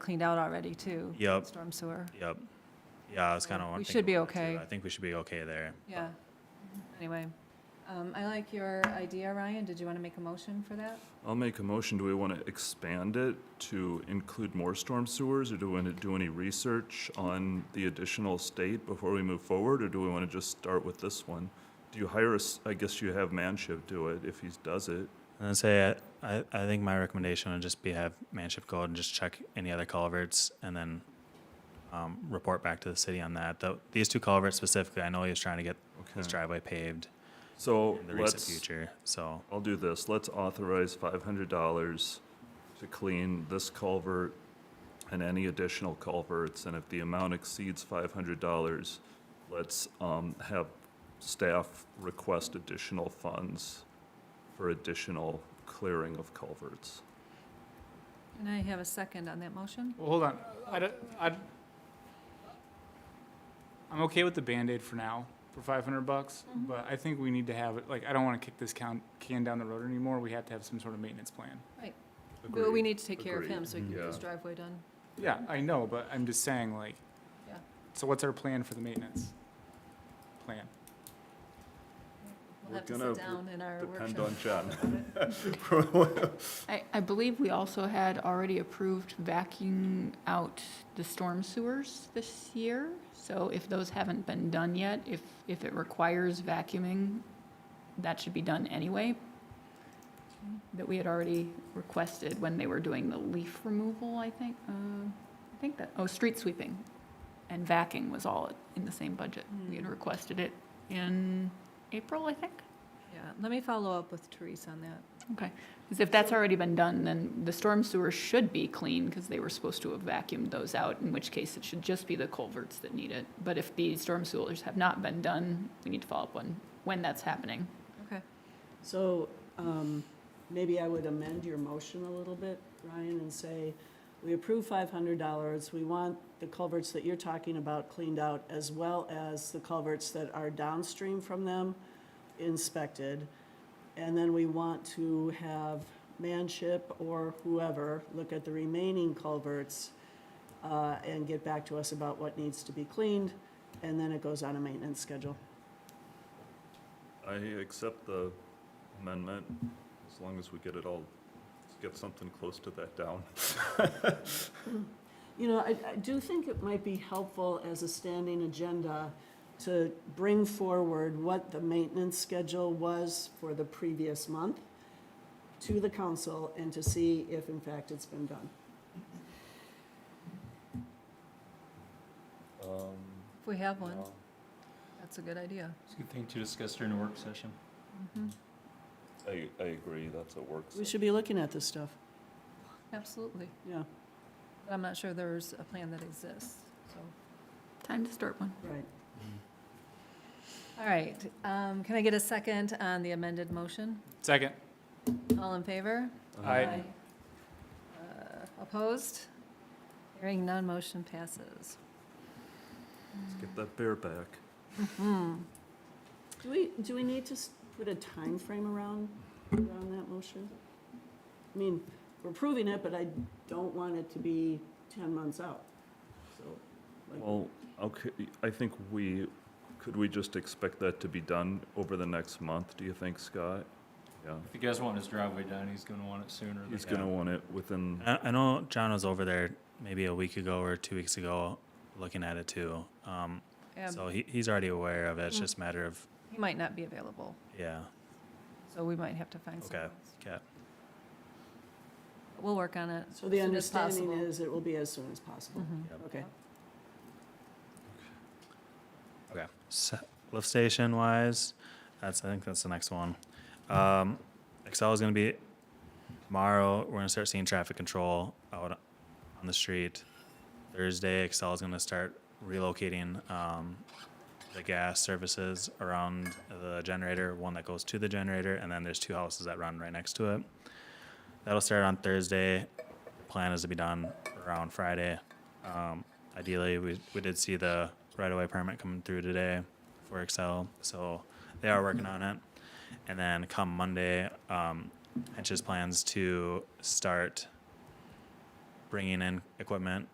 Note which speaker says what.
Speaker 1: cleaned out already too.
Speaker 2: Yep.
Speaker 1: Storm sewer,
Speaker 2: Yep. Yeah, I was kind of.
Speaker 1: We should be okay.
Speaker 2: I think we should be okay there.
Speaker 1: yeah. Anyway, um, I like your idea, Ryan. Did you want to make a motion for that?
Speaker 3: I'll make a motion. Do we want to expand it to include more storm sewers, or do we want to do any research on the additional state before we move forward, or do we want to just start with this one? Do you hire us? I guess you have Manship do it if he does it.
Speaker 2: And I'd say I, I, I think my recommendation would just be have Manship go out and just check any other culverts and then um, report back to the city on that. Though these two culverts specifically, I know he was trying to get his
Speaker 4: Hmm.
Speaker 3: Okay.
Speaker 2: driveway paved
Speaker 3: So
Speaker 2: in the recent
Speaker 3: let's.
Speaker 2: future. So
Speaker 3: I'll do this. Let's authorize five hundred dollars to clean this culvert and any additional culverts, and if the amount exceeds five hundred dollars, let's, um, have staff request additional funds for additional clearing of culverts.
Speaker 1: And I have a second on that motion.
Speaker 5: Well, hold on. I, don't- I, am okay with the Band-Aid for now, for five hundred bucks,
Speaker 1: Mhm.
Speaker 5: but I think we need to have, it. like, I don't wanna kick this can, can down the road anymore. We have to have some sort of maintenance plan.
Speaker 1: But we need to take care of
Speaker 3: Agreed.
Speaker 1: him so we can get
Speaker 3: Yeah.
Speaker 1: his driveway done.
Speaker 5: Yeah, I know, but I'm just saying, like,
Speaker 1: Yeah.
Speaker 5: so what's our plan for the maintenance? Plan.
Speaker 1: We'll
Speaker 3: We're
Speaker 1: have to
Speaker 3: gonna
Speaker 1: sit down in our workshop.
Speaker 3: depend on John.
Speaker 1: and talk about it.
Speaker 6: I, I believe we also had already approved vacuuming out the storm sewers this year. So if those haven't been done yet, if, if it requires vacuuming, that should be done anyway. That we had already requested when they were doing the leaf removal, I think, uh, I think that, oh, street sweeping and vacuuming was all in the same budget. We had
Speaker 1: Hmm.
Speaker 6: requested it in April, I think.
Speaker 1: Yeah, let me follow up with Therese on that.
Speaker 6: Because if that's already been done, then the storm sewer should be clean, because they were supposed to have vacuumed those out, in which case it should just be the culverts that need it. But if the storm sewers have not been done, we need to follow up on when that's happening.
Speaker 1: Okay.
Speaker 7: So um, maybe I would amend your motion a little bit, Ryan, and say, we approve $500. We want the culverts that you're talking about cleaned out, as well as the culverts that are downstream from them inspected. And then we want to have Manship or whoever look at the remaining culverts uh, and get back to us about what needs to be cleaned, and then it goes on a maintenance schedule.
Speaker 3: I accept the amendment, as long as we get it all, get something close to that down.
Speaker 7: You know, I, I do think it might be helpful as a standing agenda to bring forward what the maintenance schedule was for the previous month to the council and to see if in fact it's been done.
Speaker 3: Um,
Speaker 1: If we have one, that's a good idea.
Speaker 4: It's a good thing to discuss during a work session.
Speaker 1: Mhm.
Speaker 3: I, I agree, that's a work
Speaker 7: We should be looking at this stuff,
Speaker 1: Absolutely.
Speaker 7: yeah,
Speaker 1: But I'm not sure there's a plan that exists, so.
Speaker 6: Time to start one.
Speaker 7: right.
Speaker 1: All right, um, can I get a second on the amended motion?
Speaker 5: Second.
Speaker 1: All in favor?
Speaker 5: Aye.
Speaker 1: Uh, Opposed? Hearing none, motion passes.
Speaker 3: Let's get that bear back.
Speaker 1: Hmm,
Speaker 7: Do we, do we need to s- put a time frame around, around that motion? I mean, we're approving it, but I don't want it to be ten months out, so. like-
Speaker 3: Well, okay, I think we, could we just expect that to be done over the next month, do you think, Scott? Yeah,
Speaker 4: If you guys want his driveway done, he's gonna want it sooner than.
Speaker 3: he's gonna want it within,
Speaker 2: I, I know John was over there maybe a week ago or two weeks ago looking at it too. Um,
Speaker 1: Yeah,
Speaker 2: So he, he's already aware of it. It's
Speaker 1: Mm.
Speaker 2: just a matter of,
Speaker 1: He might not be available,
Speaker 2: yeah,
Speaker 1: so we might have to find someone
Speaker 2: Okay.
Speaker 1: else.
Speaker 2: okay.
Speaker 1: We'll work on it.
Speaker 7: So the
Speaker 1: as soon as
Speaker 7: understanding
Speaker 1: possible.
Speaker 7: is it will be as soon as possible.
Speaker 1: Mhm.
Speaker 2: Yep.
Speaker 7: Okay.
Speaker 2: Okay. So, lift station wise, that's I think that's the next one. Um, Excel is going to be tomorrow. We're going to start seeing traffic control out on the street. Thursday, Excel is going to start relocating um, the gas services around the generator. One that goes to the generator, and then there's two houses that run right next to it. That'll start on Thursday. The plan is to be done around Friday. Um, ideally, we, we did see the right of way permit coming through today for Excel, so they are working on it. And then come Monday, um, Hench's plans to start bringing in equipment